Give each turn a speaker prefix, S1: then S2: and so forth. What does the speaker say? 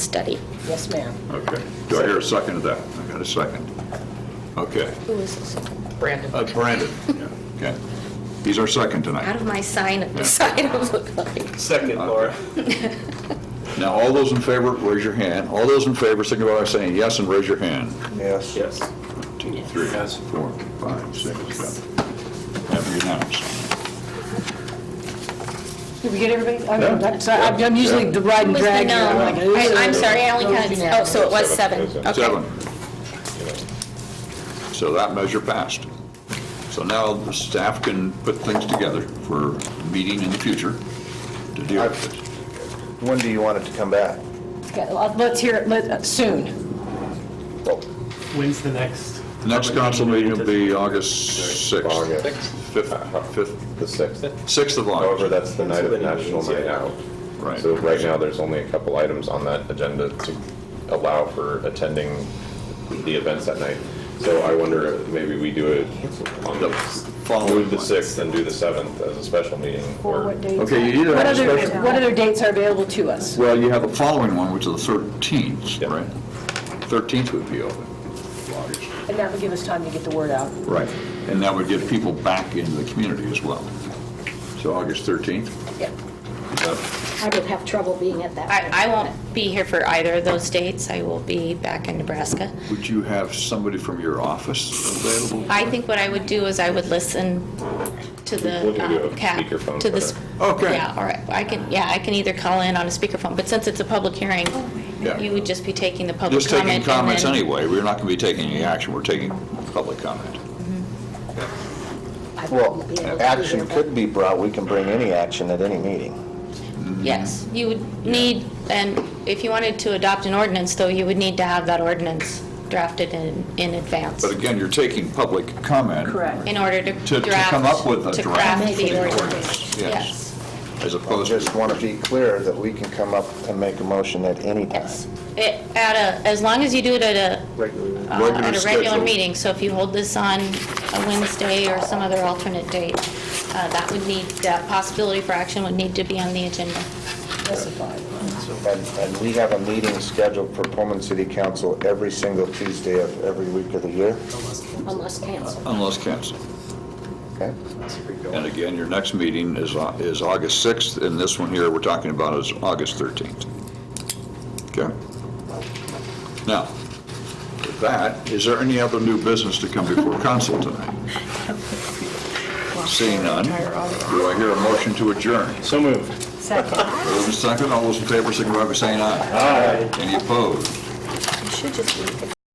S1: study.
S2: Yes, ma'am.
S3: Okay. Do I hear a second to that? I got a second. Okay.
S1: Who is this?
S2: Brandon.
S3: Uh, Brandon. Yeah, Okay. He's our second
S1: Out
S3: tonight.
S1: of my sign, the sign of look like.
S4: Second,
S5: Uh,
S4: Laura.
S3: Now, all those in favor, raise your hand. All those in favor, signify by saying yes and raise your hand.
S5: Yes.
S4: Yes.
S3: Two, three,
S4: Yes.
S3: four, five, six, seven. Have you announced?
S6: Did we get everybody? I'm- I'm sorry, I'm I'm usually the ride and
S1: Who was the
S6: drag. here. I'm
S1: no?
S6: like, "Ooh."
S1: I- I'm sorry, I only counted, oh, so it was seven. Okay.
S3: Seven. So that measure passed. So now the staff can put things together for meeting in the future to deal with it.
S5: When do you want it to come back?
S6: Okay, well, Let's hear it, let, uh, soon.
S7: When's the next?
S3: The Next council meeting will be August 6th.
S8: August.
S3: Fifth, uh, fifth,
S8: The 6th.
S3: 6th of
S8: However,
S3: August.
S8: that's the night of the National Night Out.
S3: Right.
S8: So right now, there's only a couple items on that agenda to allow for attending the events that night. So I wonder if maybe we do it on the,
S3: following
S8: move the
S3: one.
S8: 6th and do the 7th as a special meeting,
S6: Or
S8: or
S6: what dates?
S3: Okay, you either
S6: What
S3: have a
S6: other,
S3: special-
S6: what other dates are available to us?
S3: Well, you have the following one, which is the 13th,
S8: Yeah.
S3: right? 13th would be open. August.
S6: And that would give us time to get the word out.
S3: Right. And that would get people back into the community as well. So August 13th?
S9: I would have trouble being at that.
S1: I, I won't be here for either of those dates. I will be back in Nebraska.
S3: Would you have somebody from your office available?
S1: I think what I would do is I would listen to
S8: We'll
S1: the
S8: do a
S1: um, cap,
S8: speakerphone
S1: to
S8: for
S1: this.
S3: that. Okay.
S1: Yeah, all right. I can, yeah, I can either call in on a speakerphone, but since it's a public hearing,
S3: Yeah.
S1: you would just be taking the public comment.
S3: Just taking
S1: and
S3: comments
S1: then-
S3: anyway. We're not going to be taking any action. We're taking public comment.
S9: I
S5: Well,
S9: wouldn't be able to be
S5: action
S9: here, but-
S5: could be brought, we can bring any action at any meeting.
S1: Yes,
S3: Mm-hmm.
S1: you would need, and if you wanted to adopt an ordinance, though, you would need to have that ordinance drafted in, in advance
S3: But again, you're taking public comment.
S1: in order to
S3: To-
S1: draft.
S3: to come up with a
S1: to
S3: draft.
S1: craft the
S9: Maybe an
S1: ordinance.
S9: ordinance.
S3: Yes.
S1: Yes,
S3: As
S5: I
S3: opposed to...
S5: just want to be clear that we can come up and make a motion at any time.
S1: yes. It- At a, as long as you do it at a, uh,
S3: Regular
S1: at a regular
S3: schedule.
S1: meeting, so if you hold this on a Wednesday or some other alternate date, uh, that would need, that possibility for action would need to be on the agenda.
S5: And, and we have a meeting scheduled for Pullman City Council every single Tuesday of every week of the year,
S9: Unless canceled.
S3: Unless canceled.
S5: okay?
S3: And again, your next meeting is, Au- is August 6th, and this one here we're talking about is August 13th. Okay? Now, with that, is there any other new business to come before council tonight? Seeing none, do I hear a motion to adjourn?
S4: So moved.
S3: Move in second, all those in favor signify by saying aye. Aye. Any opposed?
S9: You should just leave it.